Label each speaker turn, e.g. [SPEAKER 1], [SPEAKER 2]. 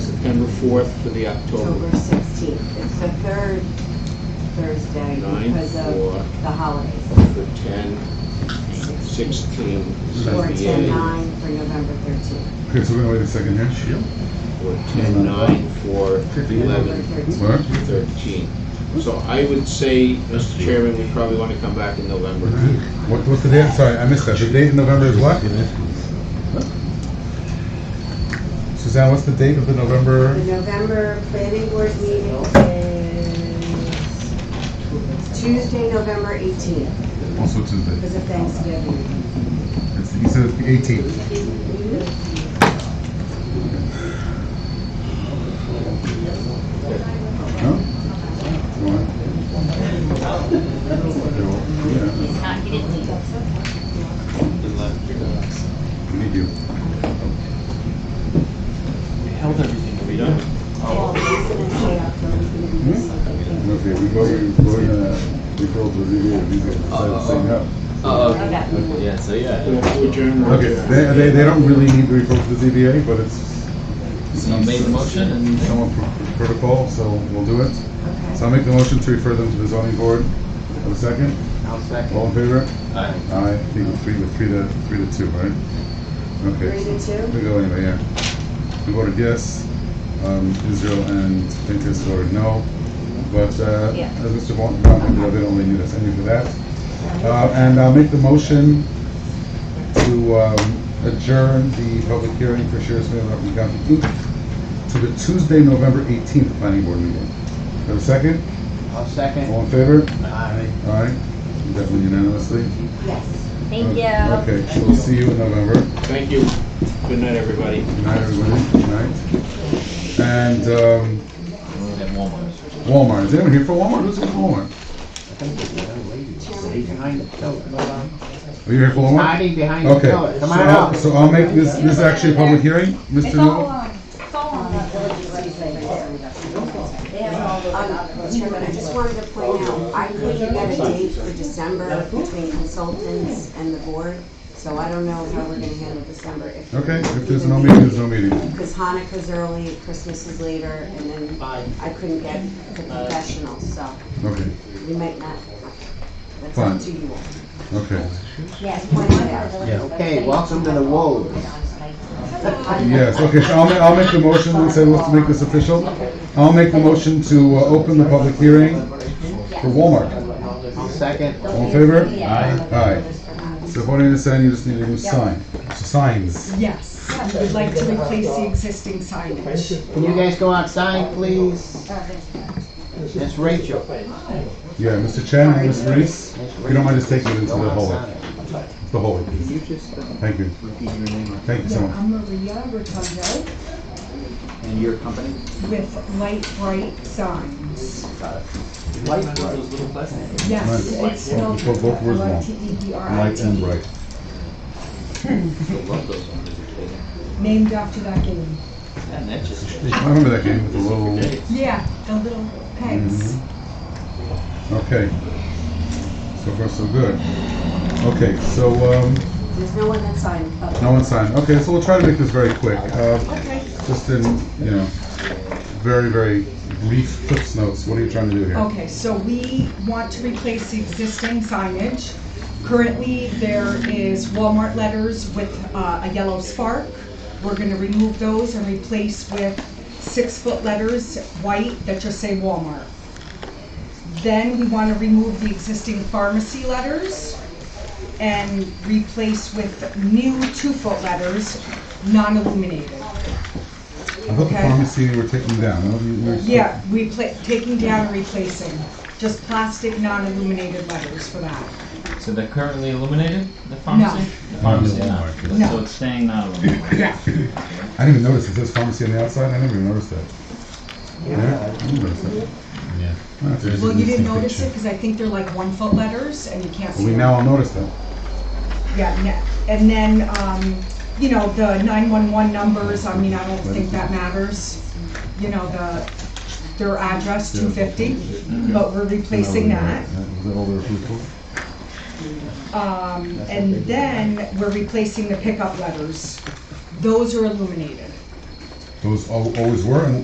[SPEAKER 1] September 4th to the October.
[SPEAKER 2] October 16th. It's the third Thursday
[SPEAKER 1] Nine,
[SPEAKER 2] because
[SPEAKER 1] four.
[SPEAKER 2] of the holidays.
[SPEAKER 1] For 10, 16,
[SPEAKER 2] Or 10,
[SPEAKER 1] 78.
[SPEAKER 2] 9 for November 13th.
[SPEAKER 3] Okay, so wait a second here.
[SPEAKER 1] Or 10, 9 for
[SPEAKER 3] Fifteen.
[SPEAKER 2] November
[SPEAKER 1] 11,
[SPEAKER 2] 13th.
[SPEAKER 3] What?
[SPEAKER 1] 13. So I would say, Mr. Chairman, we probably want to come back in November.
[SPEAKER 3] What, what's the date? Sorry, I missed that. The date in November is what? Suzanne, what's the date of the
[SPEAKER 2] The
[SPEAKER 3] November?
[SPEAKER 2] November planning board meeting is Tuesday, November 18th
[SPEAKER 3] Also Tuesday.
[SPEAKER 2] because of Thanksgiving.
[SPEAKER 3] It's, you said it's the eighteenth. No? Why? Yeah,
[SPEAKER 4] He's not, he didn't leave.
[SPEAKER 3] we need you.
[SPEAKER 5] held everything
[SPEAKER 1] We done?
[SPEAKER 2] Well, Jason and Shayla are going to be
[SPEAKER 3] Hmm?
[SPEAKER 2] something.
[SPEAKER 3] Okay, we go, we go, uh, we go to the, we go to the same house.
[SPEAKER 5] Oh,
[SPEAKER 2] Okay.
[SPEAKER 5] yeah, so yeah.
[SPEAKER 1] To adjourn or
[SPEAKER 3] Okay,
[SPEAKER 1] adjourn?
[SPEAKER 3] they, they, they don't really need to report to the ZBA, but it's.
[SPEAKER 5] Someone made the motion and-
[SPEAKER 3] Someone pr- protocol, so we'll do it. So I'll make the motion to refer them to the zoning board. Have a second? All in favor?
[SPEAKER 5] Aye.
[SPEAKER 3] Aye, I think it's three to, three to, three to two, right?
[SPEAKER 2] Three
[SPEAKER 3] Okay,
[SPEAKER 2] to two?
[SPEAKER 3] we go anyway, yeah. We voted yes, um, Israel and Pincus voted no, but, uh,
[SPEAKER 4] Yeah.
[SPEAKER 3] as Mr. Von, Von, they don't really need us any for that. Uh, and I'll make the motion to, um, adjourn the public hearing for Sheriff's Mail of Rockland County Inc. to the Tuesday, November eighteenth planning board meeting. Have a second?
[SPEAKER 5] I'll second.
[SPEAKER 3] All in favor?
[SPEAKER 5] Aye.
[SPEAKER 3] Aye, definitely unanimously.
[SPEAKER 2] Yes.
[SPEAKER 4] Thank you.
[SPEAKER 3] Okay, so we'll see you in November.
[SPEAKER 1] Thank you. Good night, everybody.
[SPEAKER 3] Good night, everybody. Good night. And um,
[SPEAKER 5] At Walmart.
[SPEAKER 3] Walmart. Is anyone here for Walmart? Who's here for Walmart? Are you here for Walmart?
[SPEAKER 6] Hiding behind the
[SPEAKER 3] Okay.
[SPEAKER 6] pillar. Come
[SPEAKER 3] so
[SPEAKER 6] on
[SPEAKER 3] I'll-
[SPEAKER 6] out.
[SPEAKER 3] So I'll make this this actually a public hearing, Mr.
[SPEAKER 4] It's all
[SPEAKER 3] Newell.
[SPEAKER 4] on, it's all on that village website. They have it all over.
[SPEAKER 2] Um, Chairman, I just wanted to point out, I couldn't get a date for December between consultants and the board, so I don't know how we're gonna handle December if.
[SPEAKER 3] Okay. If there's no meeting, there's no meeting.
[SPEAKER 2] Because Hanukkah's early, Christmas is later, and then I couldn't get the professionals, so
[SPEAKER 3] Okay.
[SPEAKER 2] we might not. That's up to you all.
[SPEAKER 3] Okay.
[SPEAKER 4] Yes.
[SPEAKER 2] Point it out.
[SPEAKER 6] Okay, welcome to the wolves.
[SPEAKER 3] Yes. Okay. So I'll make I'll make the motion. Let's say let's make this official. I'll make the motion to uh, open the public hearing for Walmart.
[SPEAKER 6] I'll second.
[SPEAKER 3] All in favor?
[SPEAKER 4] Yeah.
[SPEAKER 3] Aye. So according to this sign, you just need a new sign. So signs.
[SPEAKER 7] Yes, we would like to replace the existing signage.
[SPEAKER 6] Can you guys go outside, please? That's Rachel.
[SPEAKER 3] Yeah, Mr. Chen and Ms. Reese. If you don't mind just taking it into the
[SPEAKER 6] Go
[SPEAKER 3] hallway.
[SPEAKER 6] outside.
[SPEAKER 3] The hallway,
[SPEAKER 6] Can
[SPEAKER 3] please.
[SPEAKER 6] you just, uh,
[SPEAKER 3] Thank you.
[SPEAKER 6] repeat your name
[SPEAKER 3] Thank you so much.
[SPEAKER 7] I'm Maria Rotundo
[SPEAKER 6] and your company?
[SPEAKER 7] with Light Bright Signs.
[SPEAKER 6] Light
[SPEAKER 5] Those little plastic.
[SPEAKER 7] Yes,
[SPEAKER 3] Right.
[SPEAKER 7] it's spelled
[SPEAKER 3] You put both words wrong.
[SPEAKER 7] E
[SPEAKER 3] Light and
[SPEAKER 7] L-I-T-E-B-R-I-T,
[SPEAKER 3] bright.
[SPEAKER 5] Love those ones.
[SPEAKER 7] named after that game.
[SPEAKER 5] And that just.
[SPEAKER 3] I remember that game with the little,
[SPEAKER 7] Yeah, the little pegs.
[SPEAKER 3] Mm-hmm. okay. So far, so good. Okay, so, um,
[SPEAKER 2] There's no one that signed public.
[SPEAKER 3] no one signed. Okay, so we'll try to make this very quick. Uh,
[SPEAKER 7] Okay,
[SPEAKER 3] just in, you know, very, very brief cliff notes. What are you trying to do here?
[SPEAKER 7] okay, so we want to replace the existing signage. Currently, there is Walmart letters with uh, a yellow spark. We're gonna remove those and replace with six-foot letters, white, that just say Walmart. Then we want to remove the existing pharmacy letters and replace with new two-foot letters, non-illuminated.
[SPEAKER 3] I thought the
[SPEAKER 7] okay.
[SPEAKER 3] pharmacy you were taking down. No, you- you were-
[SPEAKER 7] Yeah, repla taking down and replacing, just plastic non-illuminated letters for that.
[SPEAKER 5] So they're currently illuminated, the pharmacy? The pharmacy, not.
[SPEAKER 7] No.
[SPEAKER 5] So it's staying not illuminated.
[SPEAKER 7] Yeah.
[SPEAKER 3] I didn't even notice it says pharmacy on the outside. I never even noticed that. Yeah. I didn't notice that.
[SPEAKER 5] Yeah.
[SPEAKER 3] Well,
[SPEAKER 7] Well, you didn't notice it because I think they're like one-foot letters and you can't see
[SPEAKER 3] We
[SPEAKER 7] them.
[SPEAKER 3] now all notice that.
[SPEAKER 7] Yeah, ne- and then, um, you know, the nine-one-one numbers, I mean, I don't think that matters. You know, the, their address, two fifty, but we're replacing that.
[SPEAKER 3] Was that all the approval?
[SPEAKER 7] Um, and then we're replacing the pickup letters. Those are illuminated.
[SPEAKER 3] Those al- always were and